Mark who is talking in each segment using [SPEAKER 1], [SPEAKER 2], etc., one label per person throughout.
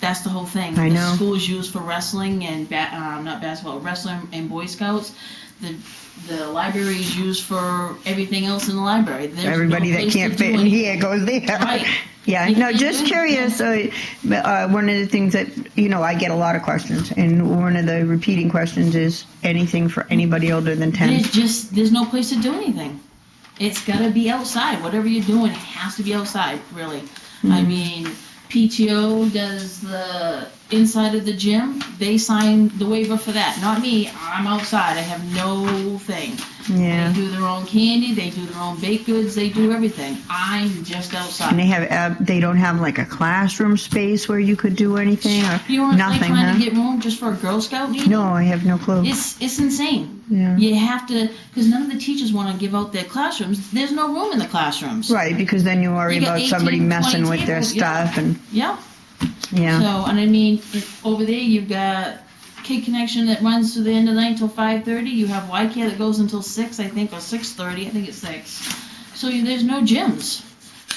[SPEAKER 1] That's the whole thing.
[SPEAKER 2] I know.
[SPEAKER 1] The school is used for wrestling and ba- um, not basketball, wrestling and Boy Scouts. The the library is used for everything else in the library. There's no
[SPEAKER 2] Everybody that
[SPEAKER 1] place to
[SPEAKER 2] can't
[SPEAKER 1] do
[SPEAKER 2] fit in
[SPEAKER 1] anything.
[SPEAKER 2] here goes there.
[SPEAKER 1] Right.
[SPEAKER 2] Yeah,
[SPEAKER 1] You
[SPEAKER 2] no,
[SPEAKER 1] can't
[SPEAKER 2] just
[SPEAKER 1] do it,
[SPEAKER 2] curious, uh, uh, one of the things that, you know, I get a lot of questions, and one of the repeating questions is anything for anybody older than 10?
[SPEAKER 1] There's just there's no place to do anything. It's gotta be outside. Whatever you're doing it has to be outside, really.
[SPEAKER 2] Hmm.
[SPEAKER 1] I mean, PTO does the inside of the gym. They sign the waiver for that. Not me. I'm outside. I have no thing.
[SPEAKER 2] Yeah,
[SPEAKER 1] They do their own candy. They do their own baked goods. They do everything. I'm just
[SPEAKER 2] and
[SPEAKER 1] outside.
[SPEAKER 2] they have, ab- they don't have like a classroom space where you could do anything, or
[SPEAKER 1] You want to
[SPEAKER 2] nothing,
[SPEAKER 1] trying
[SPEAKER 2] huh?
[SPEAKER 1] to get room just for a Girl Scout meeting?
[SPEAKER 2] No, I have no clue.
[SPEAKER 1] It's it's insane.
[SPEAKER 2] Yeah.
[SPEAKER 1] You have to because none of the teachers want to give out their classrooms. There's no room in the classrooms.
[SPEAKER 2] Right, because then you worry
[SPEAKER 1] You got
[SPEAKER 2] about somebody
[SPEAKER 1] 18, 20
[SPEAKER 2] messing with their
[SPEAKER 1] tables, yeah.
[SPEAKER 2] stuff, and,
[SPEAKER 1] Yeah.
[SPEAKER 2] yeah,
[SPEAKER 1] So, and I mean, it- over there, you've got Kid Connection that runs to the end of the night till five thirty. You have YCAT that goes until six, I think, or six thirty. I think it's six. So you, there's no gyms.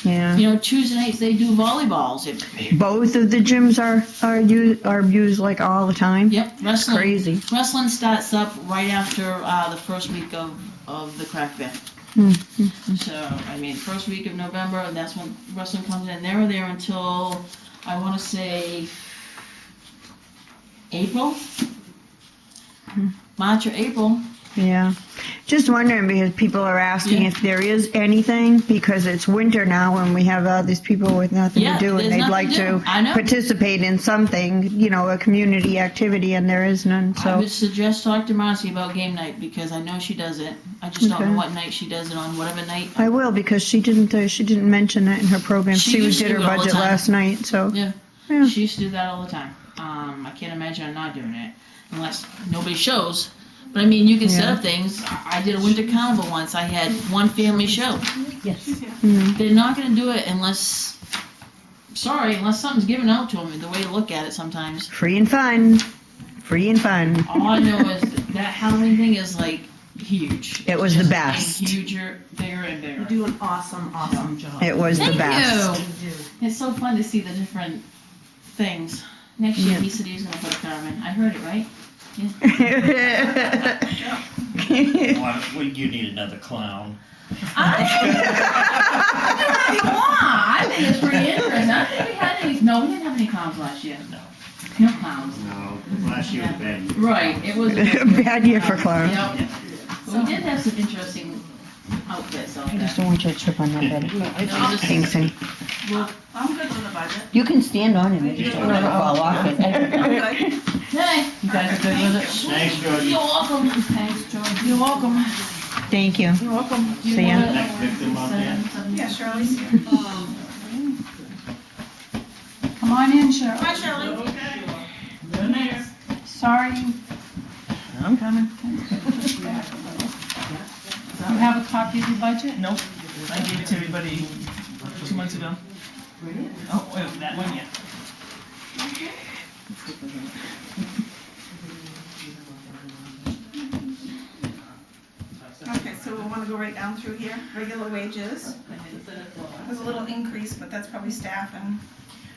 [SPEAKER 2] yeah.
[SPEAKER 1] You know, Tuesday nights they do volleyballs. It,
[SPEAKER 2] Both of the gyms are, are used, are used like all the time?
[SPEAKER 1] yep, wrestling.
[SPEAKER 2] Crazy.
[SPEAKER 1] Wrestling starts up right after uh, the first week of, of the craft fair.
[SPEAKER 2] Hmm,
[SPEAKER 1] So, I mean, first week of November, and that's when wrestling comes in. They were there until, I want to say, April?
[SPEAKER 2] Hmm.
[SPEAKER 1] March or April.
[SPEAKER 2] Yeah. Just wondering because people are asking
[SPEAKER 1] Yeah.
[SPEAKER 2] if there is anything because it's winter now and we have all these people with nothing
[SPEAKER 1] Yeah,
[SPEAKER 2] to do and
[SPEAKER 1] there's
[SPEAKER 2] they'd
[SPEAKER 1] nothing
[SPEAKER 2] like
[SPEAKER 1] to
[SPEAKER 2] to
[SPEAKER 1] do. I know.
[SPEAKER 2] participate in something, you know, a community activity and there is none.
[SPEAKER 1] I
[SPEAKER 2] So
[SPEAKER 1] would suggest talk to Marcy about game night because I know she does it. I just don't
[SPEAKER 2] Okay.
[SPEAKER 1] know what night she does it on, whatever night.
[SPEAKER 2] I will because she didn't uh, she didn't mention that in her program.
[SPEAKER 1] She
[SPEAKER 2] She,
[SPEAKER 1] used
[SPEAKER 2] did
[SPEAKER 1] to
[SPEAKER 2] her
[SPEAKER 1] all the
[SPEAKER 2] budget
[SPEAKER 1] time.
[SPEAKER 2] last night. So
[SPEAKER 1] Yeah.
[SPEAKER 2] Yeah.
[SPEAKER 1] She used to do that all the time. Um, I can't imagine her not doing it unless nobody shows. But I mean, you can set
[SPEAKER 2] Yeah.
[SPEAKER 1] up things. I I did a winter carnival once. I had one family show.
[SPEAKER 3] Yes.
[SPEAKER 2] mm-hmm.
[SPEAKER 1] They're not going to do it unless, sorry, unless something's given out to them. The way to look at it sometimes.
[SPEAKER 2] free and fun. Free and fun.
[SPEAKER 1] All I know is that Halloween thing is like huge.
[SPEAKER 2] It was
[SPEAKER 1] It's
[SPEAKER 2] the
[SPEAKER 1] just getting
[SPEAKER 2] best.
[SPEAKER 1] Huger, bigger and
[SPEAKER 3] You
[SPEAKER 1] bigger.
[SPEAKER 3] do an awesome, awesome job.
[SPEAKER 2] It was
[SPEAKER 1] Thank
[SPEAKER 2] the best.
[SPEAKER 1] you.
[SPEAKER 3] You do.
[SPEAKER 1] It's so fun to see the different things. Next year,
[SPEAKER 2] Yeah.
[SPEAKER 1] he said he was going to put a Carmen. I heard it right.
[SPEAKER 4] Why, well, you need another clown.
[SPEAKER 1] I think it's pretty interesting. I think we had any, no, we didn't have any clowns last year. No clowns.
[SPEAKER 4] No, last year was bad.
[SPEAKER 1] Right, it was.
[SPEAKER 2] Bad year for clowns.
[SPEAKER 1] Yep. But we did have some interesting outfits out
[SPEAKER 2] I
[SPEAKER 1] there.
[SPEAKER 2] just don't want you to trip on that bed.
[SPEAKER 1] No, just-
[SPEAKER 2] Thanks, honey.
[SPEAKER 1] well,
[SPEAKER 3] I'm good with the budget.
[SPEAKER 2] You can stand on it.
[SPEAKER 3] just
[SPEAKER 2] don't fall off
[SPEAKER 3] I'm good.
[SPEAKER 1] Hey,
[SPEAKER 3] You guys are good with it?
[SPEAKER 4] Thanks, Georgie.
[SPEAKER 1] you're welcome. Thanks, George. You're welcome.
[SPEAKER 2] Thank you.
[SPEAKER 3] You're welcome.
[SPEAKER 1] Do you
[SPEAKER 2] See ya.
[SPEAKER 1] wanna-
[SPEAKER 4] Next victim out there.
[SPEAKER 3] Yeah, Shirley's here. Come on in, Shirley.
[SPEAKER 1] Hi, Shirley.
[SPEAKER 3] Sorry. I'm coming. You have a copy of your budget?
[SPEAKER 5] Nope, I gave it to everybody two months ago. Oh, wait, that one, yeah.
[SPEAKER 6] Okay, so we want to go right down through here, regular wages. There's a little increase, but that's probably staff and,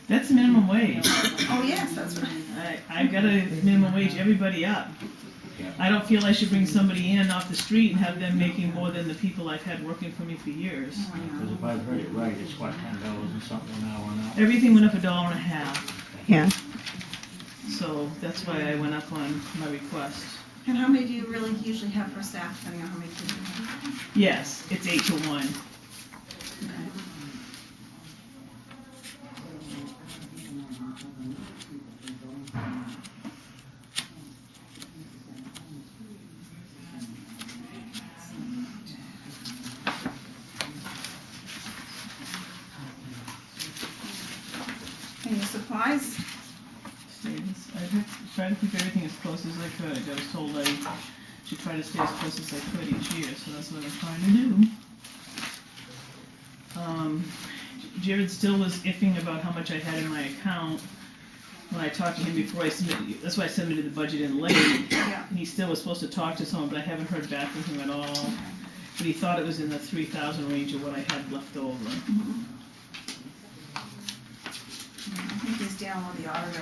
[SPEAKER 5] That's minimum wage.
[SPEAKER 6] oh yes, that's right.
[SPEAKER 5] I, I've got to minimum wage everybody up. I don't feel I should bring somebody in off the street and have them making more than the people I've had working for me for years.
[SPEAKER 4] Because if I've heard it right, it's what, ten dollars and something an hour now?
[SPEAKER 5] Everything went up a dollar and a half,
[SPEAKER 2] Yeah.
[SPEAKER 5] so that's why I went up on my request.
[SPEAKER 6] And how many do you really usually have for staff, depending on how many kids you have?
[SPEAKER 5] Yes, it's eight to one.
[SPEAKER 6] And your supplies,
[SPEAKER 5] Stays- I had- tried to keep everything as close as I could. I was told I should try to stay as close as I could each year, so that's what I'm trying to do. Um, Jared still was iffing about how much I had in my account. When I talked to him before I submitted, that's why I submitted the budget in late.
[SPEAKER 6] yeah.
[SPEAKER 5] And he still was supposed to talk to someone, but I haven't heard back from him at all. But he thought it was in the three thousand range of what I had left over.
[SPEAKER 6] I think he's down with the auditor.